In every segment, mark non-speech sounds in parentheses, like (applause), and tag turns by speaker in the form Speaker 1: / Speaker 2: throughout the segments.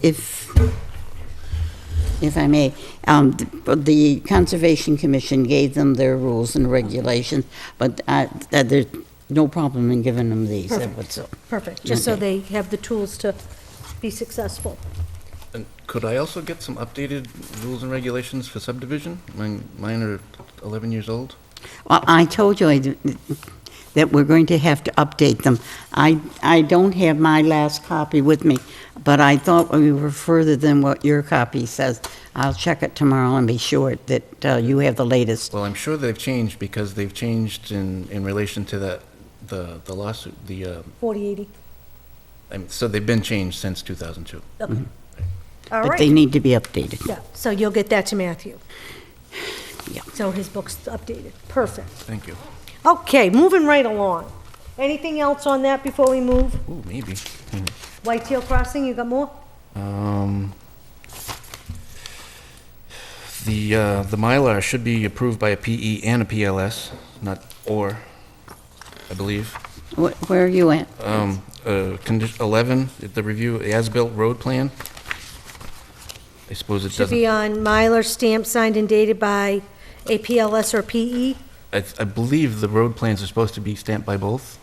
Speaker 1: if, if I may, um, th- but the Conservation Commission gave them their rules and regulations, but uh, uh, there's no problem in giving them these. that was all.
Speaker 2: Perfect, just so
Speaker 1: Okay.
Speaker 2: they have the tools to be successful.
Speaker 3: And could I also get some updated rules and regulations for subdivision? Mine, mine are 11 years old.
Speaker 1: Well, I told you I d- that we're going to have to update them. I, I don't have my last copy with me, but I thought we were further than what your copy says. I'll check it tomorrow and be sure that uh, you have the latest.
Speaker 3: Well, I'm sure they've changed because they've changed in, in relation to that, the, the lawsuit, the, uh,
Speaker 2: 4080,
Speaker 3: I mean, so they've been changed since 2002.
Speaker 2: okay. All
Speaker 1: But they
Speaker 2: right,
Speaker 1: need to be updated.
Speaker 2: yeah, so you'll get that to Matthew.
Speaker 1: Yeah.
Speaker 2: So his book's updated, perfect.
Speaker 3: Thank you.
Speaker 2: Okay, moving right along. Anything else on that before we move?
Speaker 3: Ooh, maybe. Hmm.
Speaker 2: Whitetail Crossing, you got more?
Speaker 3: Um, the, uh, the Mylar should be approved by a PE and a PLS, not or, I believe.
Speaker 1: Wh- Where are you at?
Speaker 3: Um, uh, condition 11, the review, the as-built road plan. I suppose it
Speaker 2: Should be
Speaker 3: doesn't,
Speaker 2: on Mylar stamp signed and dated by a PLS or E? PE?
Speaker 3: I, I believe the road plans are supposed to be stamped by both.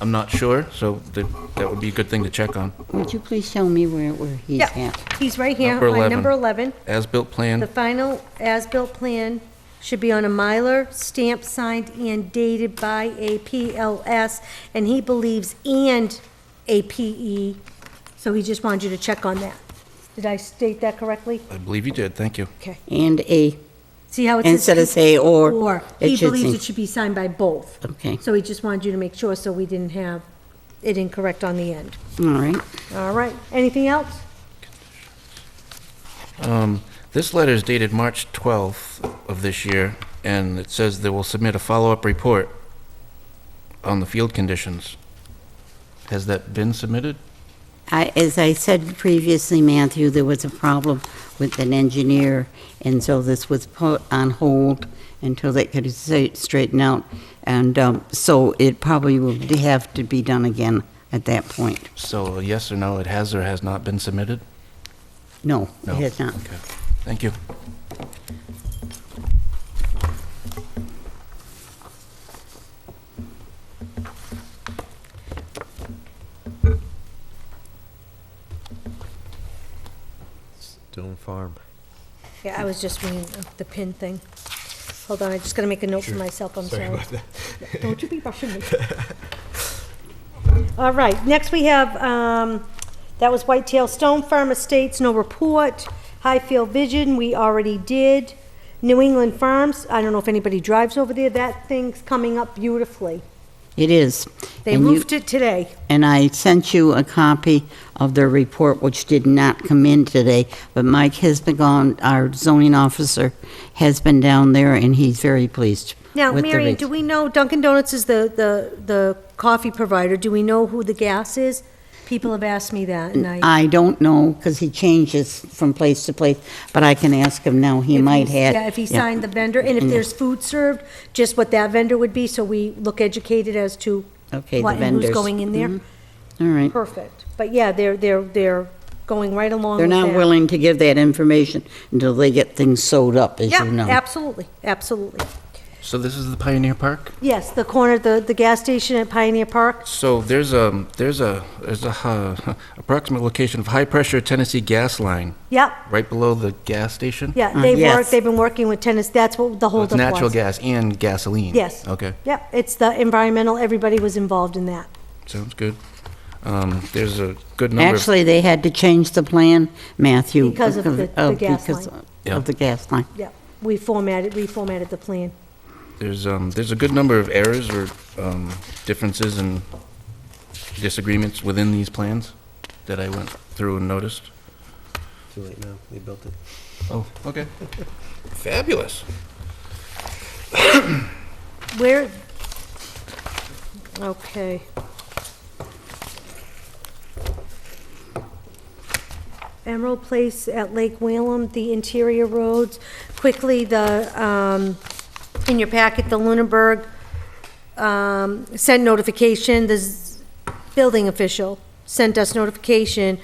Speaker 3: I'm not sure, so that, that would be a good thing to check on.
Speaker 1: Would you please show me where, where he's
Speaker 2: Yeah,
Speaker 1: at?
Speaker 2: he's right here
Speaker 3: Number
Speaker 2: on
Speaker 3: 11.
Speaker 2: number 11.
Speaker 3: As-built
Speaker 2: The
Speaker 3: plan,
Speaker 2: final as-built plan should be on a Mylar, stamp signed and dated by a PLS, and he believes and a PE, so he just wanted you to check on that. Did I state that correctly?
Speaker 3: I believe you did, thank you.
Speaker 2: Okay.
Speaker 1: And a,
Speaker 2: See how it says? E?
Speaker 1: instead of say or.
Speaker 2: Or,
Speaker 1: it
Speaker 2: he
Speaker 1: should
Speaker 2: believes
Speaker 1: say-
Speaker 2: it should be signed by both.
Speaker 1: Okay,
Speaker 2: So he just wanted you to make sure, so we didn't have it incorrect on the end.
Speaker 1: all right.
Speaker 2: All right, anything else?
Speaker 3: Um, This letter is dated March 12th of this year, and it says they will submit a follow-up report on the field conditions. Has that been submitted?
Speaker 1: I, as I said previously, Matthew, there was a problem with an engineer, and so this was put on hold until they could sa- straighten out. And, um, so it probably will have to be done again at that point.
Speaker 3: So yes or no, it has or has not been submitted?
Speaker 1: No,
Speaker 3: No.
Speaker 1: it has not.
Speaker 3: Okay, thank you.
Speaker 4: Stone Farm.
Speaker 2: Yeah, I was just reading the pin thing. Hold on, I just gotta make a note for myself, I'm sorry.
Speaker 4: about that.
Speaker 2: (laughs) Don't you be rushing me. All right, next we have, um, that was Whitetail Stone Farm Estates, no report. Highfield Vision, we already did. New England Farms, I don't know if anybody drives over there, that thing's coming up beautifully.
Speaker 1: It is.
Speaker 2: They
Speaker 1: And you-
Speaker 2: roofed it today.
Speaker 1: And I sent you a copy of their report, which did not come in today, but Mike has been gone, our zoning officer has been down there, and he's very pleased
Speaker 2: Now,
Speaker 1: with the
Speaker 2: Marion,
Speaker 1: res-
Speaker 2: do we know Dunkin' Donuts is the, the, the coffee provider, do we know who the gas is? People have asked me that, and I.
Speaker 1: I don't know, because he changes from place to place, but I can ask him now, he
Speaker 2: If
Speaker 1: might
Speaker 2: he's-
Speaker 1: have. Mm-hmm.
Speaker 2: Yeah, if he signed the vendor, and if there's food served, just what that vendor would be, so we look educated as to
Speaker 1: Okay, the
Speaker 2: what and
Speaker 1: vendors.
Speaker 2: who's
Speaker 1: Mm-hmm.
Speaker 2: going in there.
Speaker 1: All right.
Speaker 2: Perfect. But yeah, they're, they're, they're going right along
Speaker 1: They're
Speaker 2: with
Speaker 1: not
Speaker 2: that.
Speaker 1: willing to give that information until they get things sewed up, as you know.
Speaker 2: Yeah, absolutely, absolutely.
Speaker 3: So this is the Pioneer Park?
Speaker 2: Yes, the corner, the, the gas station at Pioneer Park,
Speaker 3: So there's a, there's a, there's a uh, (laughs) approximate location of high-pressure Tennessee gas line,
Speaker 2: yep,
Speaker 3: right below the gas station?
Speaker 2: yeah, they work,
Speaker 1: Uh, yes.
Speaker 2: they've been working with tenants, that's what the
Speaker 3: So
Speaker 2: holdup
Speaker 3: It's
Speaker 2: was.
Speaker 3: natural gas and gasoline?
Speaker 2: Yes.
Speaker 3: Okay,
Speaker 2: Yep, it's the environmental, everybody was involved in that.
Speaker 3: sounds good. Um, There's a good number of...
Speaker 1: Actually, they had to change the plan, Matthew.
Speaker 2: Because of the- the
Speaker 1: of-
Speaker 2: gas
Speaker 1: because
Speaker 2: line.
Speaker 3: Yeah.
Speaker 1: Of the gas line.
Speaker 2: Yep, we formatted, reformatted the plan.
Speaker 3: There's, um, there's a good number of errors or, um, differences and disagreements within these plans that I went through and noticed.
Speaker 4: Too late now, they built it.
Speaker 3: Oh, okay. (laughs) Fabulous.
Speaker 2: Where, okay. Emerald Place at Lake Whalum, the interior roads. Quickly, the, um, in your packet, the Lunenburg, um, sent notification, the z- building official sent us notification